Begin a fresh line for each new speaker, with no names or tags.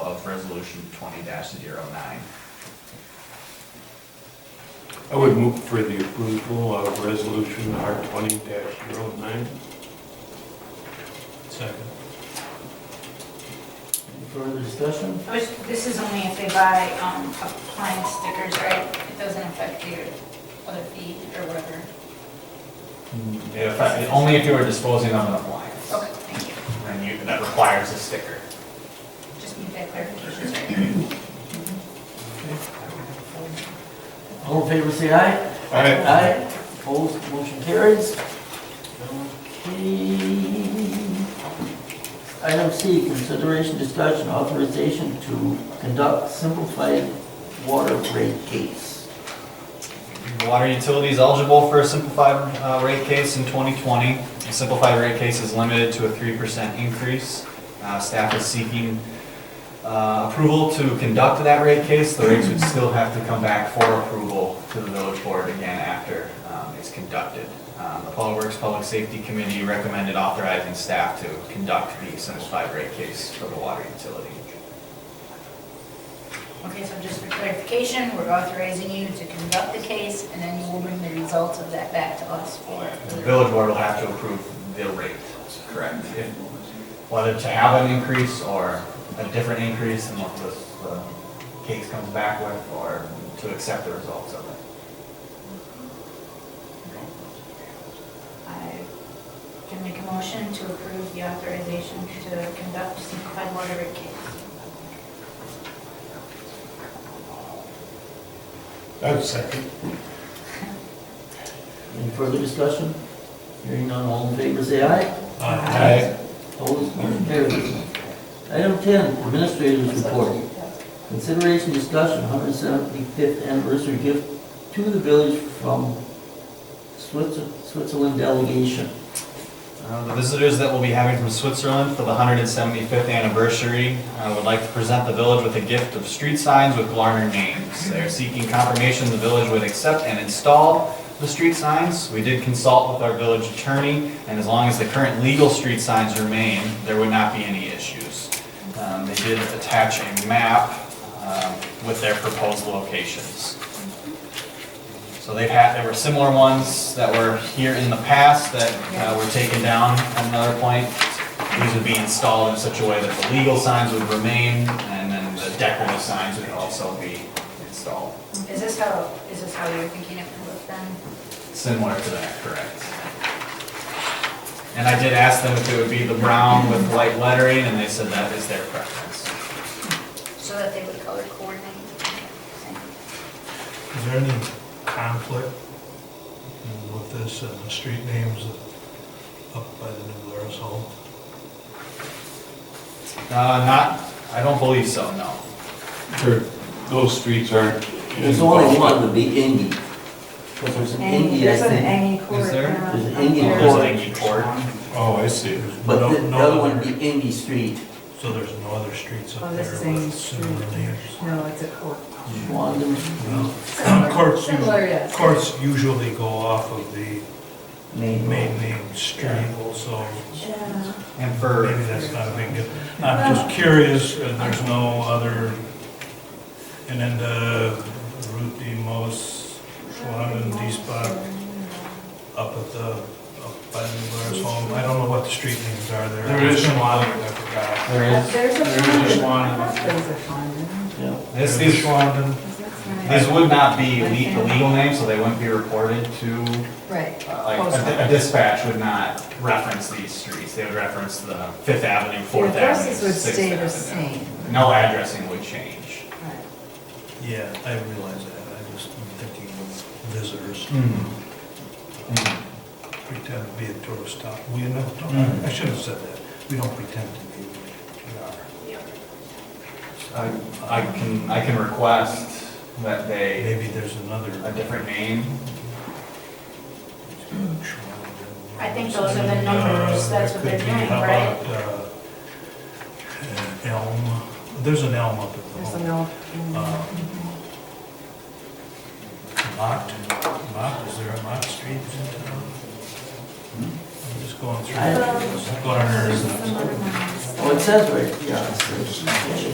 resolution twenty 9
I would move for the approval of resolution R twenty 9 Second.
Any further discussion?
Which, this is only if they buy um, appliance stickers, right? It doesn't affect your other fee or whatever.
Only if you were disposing of an appliance.
Okay, thank you.
And you, that requires a sticker.
Just need that clarification, sorry.
All in favor, say aye. Aye. Opposed, motion carries. Okay. Item C, consideration discussion authorization to conduct simplified water rate case.
Water utilities eligible for a simplified uh, rate case in 2020. The simplified rate case is limited to a 3% increase. Uh, Staff is seeking uh, approval to conduct that rate case. The rates would still have to come back for approval to the village board again after um, it's conducted. Um, The Public Works Public Safety Committee recommended authorizing staff to conduct the simplified rate case for the water utility.
Okay, so just for clarification, we're authorizing you to conduct the case, and then you will bring the results of that back to us for.
The village board will have to approve the rate, correct? If- Whether to have an increase or a different increase than what this, the case comes back with, or to accept the results of it.
I can make a motion to approve the authorization to conduct simplified water rate case.
I'd second.
Any further discussion? Hearing none, all in favor, say aye.
Uh,
Opposed, motion carries. Item 10, administrators report. Consideration discussion, 175th anniversary gift to the village from Switzer- Switzerland delegation.
Uh, The visitors that we'll be having from Switzerland for the 175th anniversary uh, would like to present the village with a gift of street signs with Glarner names. They're seeking confirmation the village would accept and install the street signs. We did consult with our village attorney, and as long as the current legal street signs remain, there would not be any issues. Um, They did attach a map um, with their proposed locations. So they've had, there were similar ones that were here in the past that uh, were taken down at another point. These would be installed in such a way that the legal signs would remain, and then the decorative signs would also be installed,
Is this how, is this how you're thinking it would look then?
similar to that, correct? And I did ask them if it would be the brown with white lettering, and they said that is their preference.
So that they would color coordinate? Thank
Is there any conflict in with this and the street names up by the new Laris home?
Uh, Not, I don't believe so, no.
Sure. Those streets aren't.
There's only one would be Indy. Because there's an Indy, I
There's an
think.
Angie court.
Is there?
uh,
There's an
up
Angie
there.
There's an Aggie Court.
Oh, I see.
But
No-
the the
no
other one
other-
would be Indy Street.
So there's no other streets up
Oh,
there
this is Angie
with similar names?
Street. No, it's a court.
Schwandam Street,
you.
um, Courts, usu-
Similar, yes.
courts usually go off of the
Main
main
Road.
name street also,
Yeah.
And
or
for
maybe that's not a big deal. I'm just curious, uh, there's no other, and then the Route de Mos, Schwanen, Diesbach, up at the, up by the Blair's home. I don't know what the street names are there.
There is
some lot I forgot.
There is,
There's a
there is
fund.
one.
There's a fund.
yeah.
this is
Schwanen.
That's nice.
These would not be le- the legal names, so they wouldn't be reported to,
Right.
uh, like, a- a dispatch would not reference these streets. They would reference the Fifth Avenue,
The
Fourth Avenue,
addresses would
Sixth
stay the
Avenue.
same.
No addressing would change.
Right.
Yeah, I realize that. I just am thinking of visitors.
Mm.
Pretend to be a tourist stop. We know,
Mm.
I shouldn't have said that. We don't pretend to be. We are.
I, I can, I can request that they,
Maybe there's another.
a different name.
I think those are the numbers,
Uh,
that's what they're doing, right?
Elm, there's an elm up at the
There's
home.
an old.
Uh, Mott, Mott, is there a Mott Street in town? I'm just going through.
I-
Glarner is not.
Oh, it says right, yeah. it says-